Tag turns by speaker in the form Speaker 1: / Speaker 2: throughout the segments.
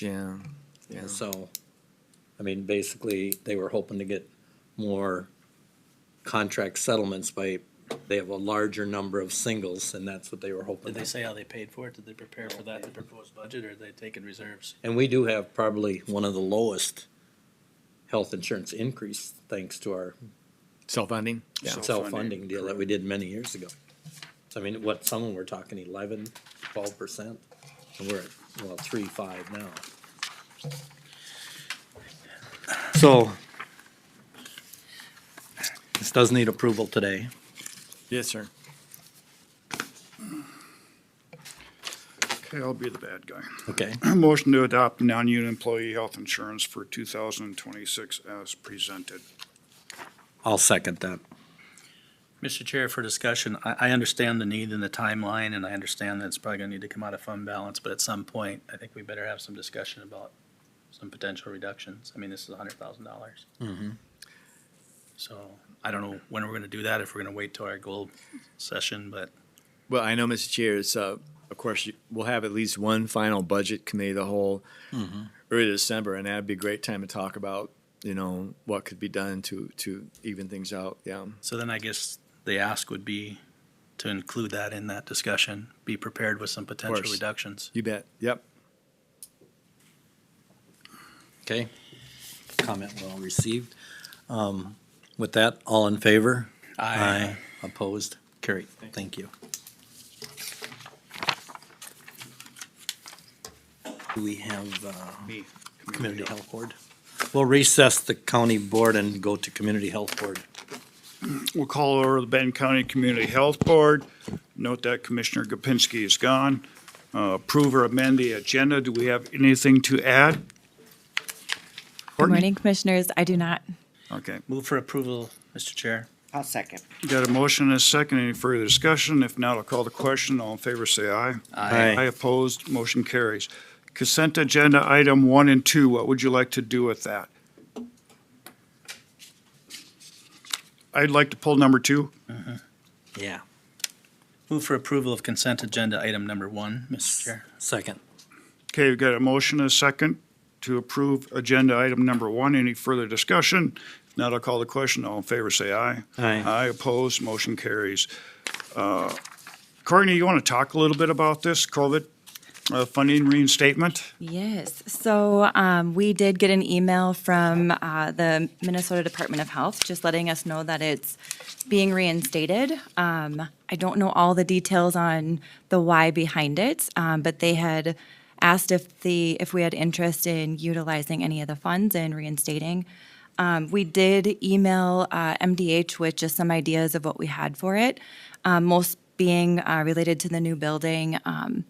Speaker 1: Yeah, yeah.
Speaker 2: So, I mean, basically, they were hoping to get more contract settlements by, they have a larger number of singles, and that's what they were hoping.
Speaker 3: Did they say how they paid for it? Did they prepare for that in the proposed budget, or did they take in reserves?
Speaker 2: And we do have probably one of the lowest health insurance increase, thanks to our
Speaker 1: Self-funding? Yeah.
Speaker 2: self-funding deal that we did many years ago. So I mean, what, some of them were talking eleven, twelve percent, and we're at, well, three, five now. So this does need approval today.
Speaker 1: Yes, sir.
Speaker 4: Okay, I'll be the bad guy.
Speaker 2: Okay,
Speaker 4: Motion to adopt non-union employee health insurance for two thousand and twenty-six as presented.
Speaker 2: I'll second that.
Speaker 3: Mr. Chair, for discussion, I, I understand the need and the timeline, and I understand that it's probably gonna need to come out of fund balance, but at some point, I think we better have some discussion about some potential reductions. I mean, this is a hundred thousand dollars.
Speaker 2: Mm-hmm.
Speaker 3: So, I don't know when we're gonna do that, if we're gonna wait till our goal session, but
Speaker 1: Well, I know, Mr. Chair, it's, uh, of course, you- we'll have at least one final budget committee of the whole early December, and that'd be a great time to talk about, you know, what could be done to, to even things out, yeah.
Speaker 3: So then I guess the ask would be to include that in that discussion, be prepared with some potential
Speaker 1: course.
Speaker 3: reductions.
Speaker 1: You bet, yep.
Speaker 2: Okay. Comment well received. Um, with that, all in favor? Opposed? Carried. Thank you. Do we have, uh,
Speaker 4: Me.
Speaker 2: Community Health Board. We'll recess the county board and go to Community Health Board.
Speaker 4: We'll call over the Benton County Community Health Board. Note that Commissioner Gopinski is gone. Uh, Approve or amend the agenda. Do we have anything to add?
Speaker 5: Good
Speaker 4: Courtney?
Speaker 5: morning, Commissioners. I do not.
Speaker 4: Okay,
Speaker 3: Move for approval, Mr. Chair.
Speaker 6: I'll second.
Speaker 4: got a motion and a second. Any further discussion? If not, I'll call the question. All in favor, say aye.
Speaker 2: Aye.
Speaker 4: Aye opposed, motion carries. Consent agenda item one and two, what would you like to do with that? I'd like to pull number two.
Speaker 2: Yeah.
Speaker 3: Move for approval of consent agenda item number one, Mr. Chair.
Speaker 2: Second.
Speaker 4: Okay, we've got a motion, and a second, to approve agenda item number one. Any further discussion? If not, I'll call the question. All in favor, say aye.
Speaker 2: Aye.
Speaker 4: Aye opposed, motion carries. Uh, Courtney, you want to talk a little bit about this COVID uh, funding reinstatement?
Speaker 5: Yes. So um, we did get an email from uh, the Minnesota Department of Health just letting us know that it's being reinstated. Um, I don't know all the details on the why behind it, um, but they had asked if the if we had interest in utilizing any of the funds and reinstating. Um, we did email uh, MDH with just some ideas of what we had for it, um, most being uh, related to the new building. Um,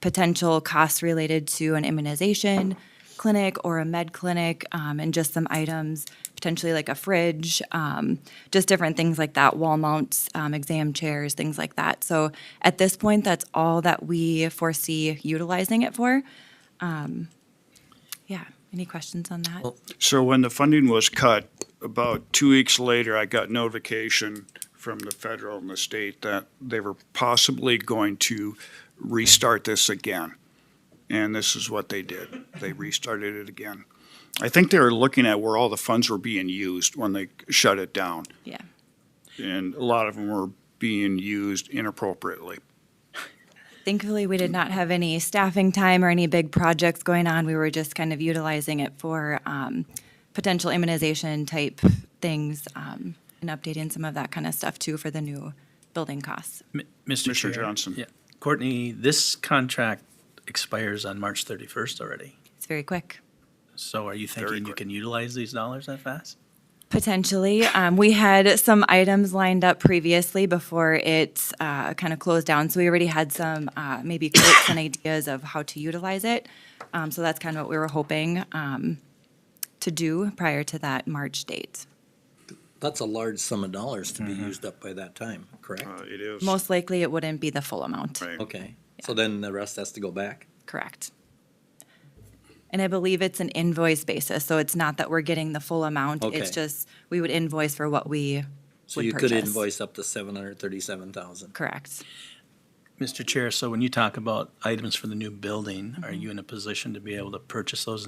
Speaker 5: potential costs related to an immunization clinic or a med clinic, um, and just some items, potentially like a fridge, um, just different things like that, wall mounts, um, exam chairs, things like that. So at this point, that's all that we foresee utilizing it for. Um, yeah, any questions on that?
Speaker 4: So when the funding was cut, about two weeks later, I got notification from the federal and the state that they were possibly going to restart this again. And this is what they did. They restarted it again. I think they were looking at where all the funds were being used when they shut it down.
Speaker 5: Yeah.
Speaker 4: And a lot of them were being used inappropriately.
Speaker 5: Thankfully, we did not have any staffing time or any big projects going on. We were just kind of utilizing it for um, potential immunization type things um, and updating some of that kind of stuff too for the new building costs.
Speaker 3: M- Mr. Chair.
Speaker 4: Commissioner Johnson.
Speaker 3: Yeah. Courtney, this contract expires on March thirty-first already.
Speaker 5: It's very quick.
Speaker 3: So are you
Speaker 4: Very
Speaker 3: thinking you
Speaker 4: quick.
Speaker 3: can utilize these dollars that fast?
Speaker 5: Potentially. Um, we had some items lined up previously before it uh, kind of closed down. So we already had some uh, maybe quotes and ideas of how to utilize it. Um, so that's kind of what we were hoping um, to do prior to that March date.
Speaker 2: That's a large sum of dollars to be used up by that time, correct?
Speaker 4: Uh, It is.
Speaker 5: Most likely, it wouldn't be the full amount.
Speaker 4: Right.
Speaker 2: Okay, so then the rest has to go back?
Speaker 5: Correct. And I believe it's an invoice basis, so it's not that we're getting the full amount.
Speaker 2: Okay.
Speaker 5: It's just, we would invoice for what we
Speaker 2: So
Speaker 5: would
Speaker 2: you could
Speaker 5: purchase.
Speaker 2: invoice up to seven hundred thirty-seven thousand.
Speaker 5: Correct.
Speaker 3: Mr. Chair, so when you talk about items for the new building, are you in a position to be able to purchase those